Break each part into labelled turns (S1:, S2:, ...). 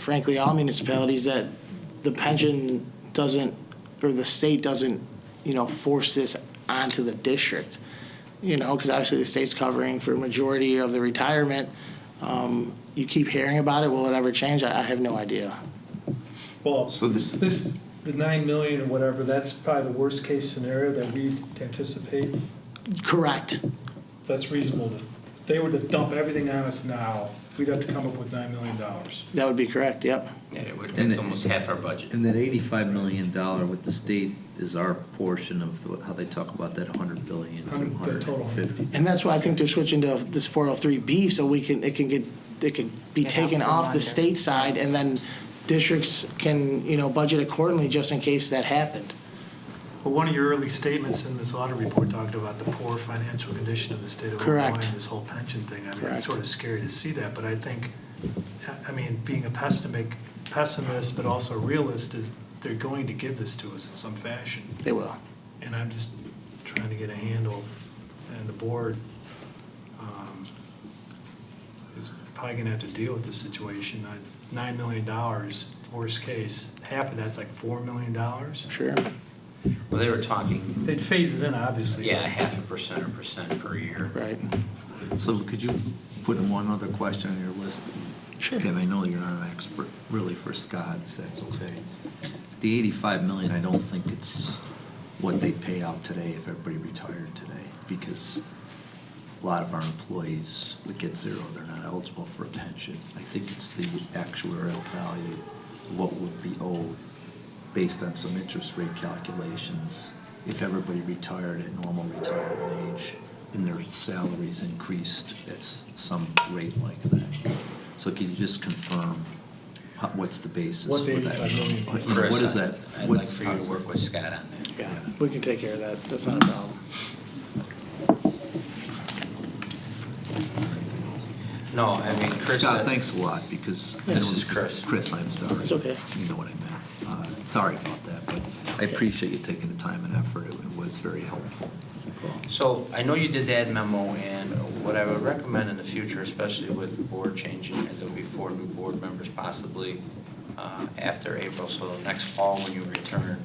S1: frankly, all municipalities that the pension doesn't, or the state doesn't, you know, force this onto the district. You know, because obviously the state's covering for a majority of the retirement. Um, You keep hearing about it. Will it ever change? I I have no idea.
S2: Well,
S3: So
S2: this,
S3: this-
S2: this, the nine million or whatever, that's probably the worst case scenario that we anticipate.
S1: Correct.
S2: So that's reasonable. If they were to dump everything on us now, we'd have to come up with nine million dollars.
S1: That would be correct, yep.
S4: Yeah, it would,
S5: And
S4: that's
S5: it-
S4: almost half our budget.
S5: And that eighty-five million dollar with the state is our portion of the- how they talk about that hundred billion to
S2: Hundred- the
S5: hundred
S2: total.
S5: and fifty.
S1: And that's why I think they're switching to this 403B, so we can, it can get, it could be
S6: Yeah,
S1: taken off the
S6: reminder.
S1: state side, and then districts can, you know, budget accordingly just in case that happened.
S7: Well, one of your early statements in this audit report talked about the poor financial condition of the state of Illinois
S1: Correct.
S7: and this whole pension thing. I mean,
S1: Correct.
S7: it's sort of scary to see that, but I think, I mean, being a pessimistic, pessimist, but also realist is they're going to give this to us in some fashion.
S1: They will.
S7: And I'm just trying to get a handle, and the board um, is probably going to have to deal with this situation. Nine- $9 million, worst case, half of that's like $4 million.
S1: Sure.
S4: Well, they were talking,
S7: They'd phase it in, obviously.
S4: yeah, half a percent or percent per year.
S1: Right.
S5: So could you put one other question on your list?
S1: Sure.
S5: Kevin, I know you're not an expert, really, for Scott, if that's okay. The eighty-five million, I don't think it's what they pay out today if everybody retired today, because a lot of our employees would get zero, they're not eligible for a pension. I think it's the actuarial value, what would be owed, based on some interest rate calculations, if everybody retired at normal retirement age and their salaries increased at s- some rate like that. So can you just confirm how- what's the basis for
S7: What the
S5: that?
S7: 85 million
S5: What-
S4: Chris,
S5: What is
S4: I-
S5: that?
S4: I'd like
S5: What's-
S4: for you to work with Scott on that.
S1: Yeah, we can take care of that. That's not a problem.
S4: No, I mean, Chris.
S5: Scott,
S4: said-
S5: thanks a lot, because. I
S4: Yeah, this
S5: know
S4: is Chris.
S5: Chris, I'm sorry.
S1: It's okay.
S5: You know what I meant. Uh, Sorry about that, but I
S1: okay.
S5: appreciate you taking the time and effort. It was very helpful.
S4: So I know you did that memo, and what I would recommend in the future, especially with the board changing, and there'll be four new board members possibly uh, after April, so next fall when you return,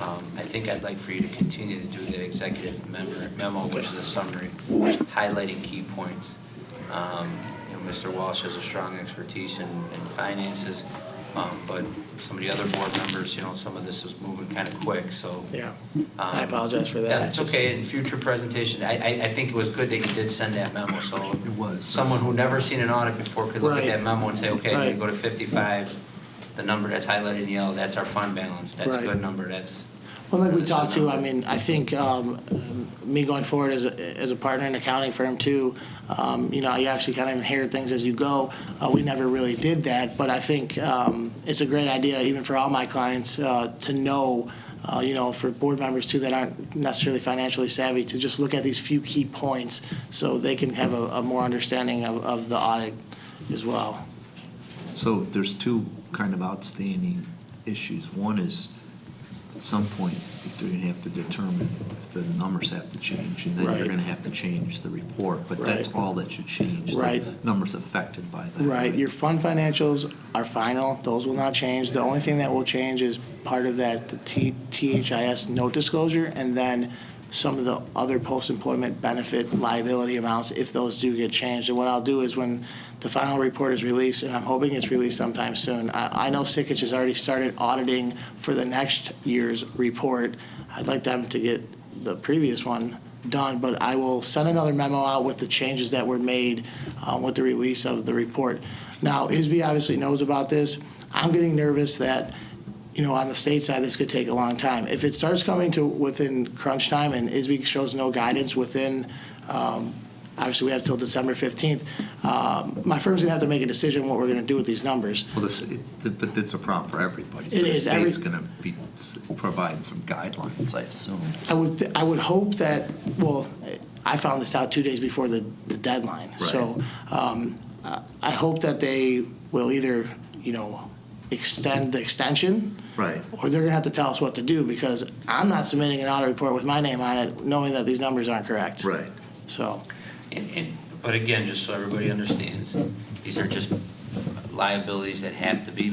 S4: um, I think I'd like for you to continue to do that executive member- memo, which is a summary, highlighting key points. Um, You know, Mr. Walsh has a strong expertise in in finances, um, but some of the other board members, you know, some of this is moving kind of quick, so.
S1: Yeah.
S4: um,
S1: I apologize for that.
S4: Yeah, it's
S1: Just-
S4: okay, in future presentations, I, I, I think it was good that you did send that memo, so.
S5: It was.
S4: Someone who never seen an audit before could look at
S1: Right.
S4: that memo and say, okay, I'm gonna
S1: Right.
S4: go to fifty-five, the number that's highlighted in yellow, that's our fund balance, that's a
S1: Right.
S4: good number, that's.
S1: Well, like we
S4: that's the
S1: talked to, I
S4: number."
S1: mean, I think um, um, me going forward as a, as a partner in an accounting firm too, um, you know, you obviously kind of inherit things as you go. Uh, we never really did that, but I think um, it's a great idea, even for all my clients, uh, to know, uh, you know, for board members too that aren't necessarily financially savvy, to just look at these few key points so they can have a, a more understanding of, of the audit as well.
S5: So there's two kind of outstanding issues. One is, at some point, you're gonna have to determine if the numbers have to change, and then you're
S1: Right.
S5: gonna have to change the report, but that's
S1: Right.
S5: all that should change. the
S1: Right.
S5: Numbers affected by that.
S1: Right, your fund financials are final, those will not change. The only thing that will change is part of that T- THIS note disclosure, and then some of the other post-employment benefit liability amounts, if those do get changed. And what I'll do is when the final report is released, and I'm hoping it's released sometime soon, I, I know Sickich has already started auditing for the next year's report. I'd like them to get the previous one done, but I will send another memo out with the changes that were made uh, with the release of the report. Now, ISB obviously knows about this. I'm getting nervous that, you know, on the state side, this could take a long time. If it starts coming to within crunch time and ISB shows no guidance within, um, obviously, we have till December 15th, um, my firm's gonna have to make a decision what we're gonna do with these numbers.
S5: Well, this, it- but it's a problem for everybody. So
S1: It
S5: the
S1: is. Every-
S5: state's gonna be, providing some guidelines, I assume.
S1: I would, th- I would hope that, well, I found this out two days before the, the deadline. So um, uh, I hope that they will either, you know, extend the extension.
S5: Right.
S1: Or they're gonna have to tell us what to do, because I'm not submitting an audit report with my name on it, knowing that these numbers aren't correct.
S5: Right.
S1: So,
S4: And, and, but again, just so everybody understands, these are just liabilities that have to be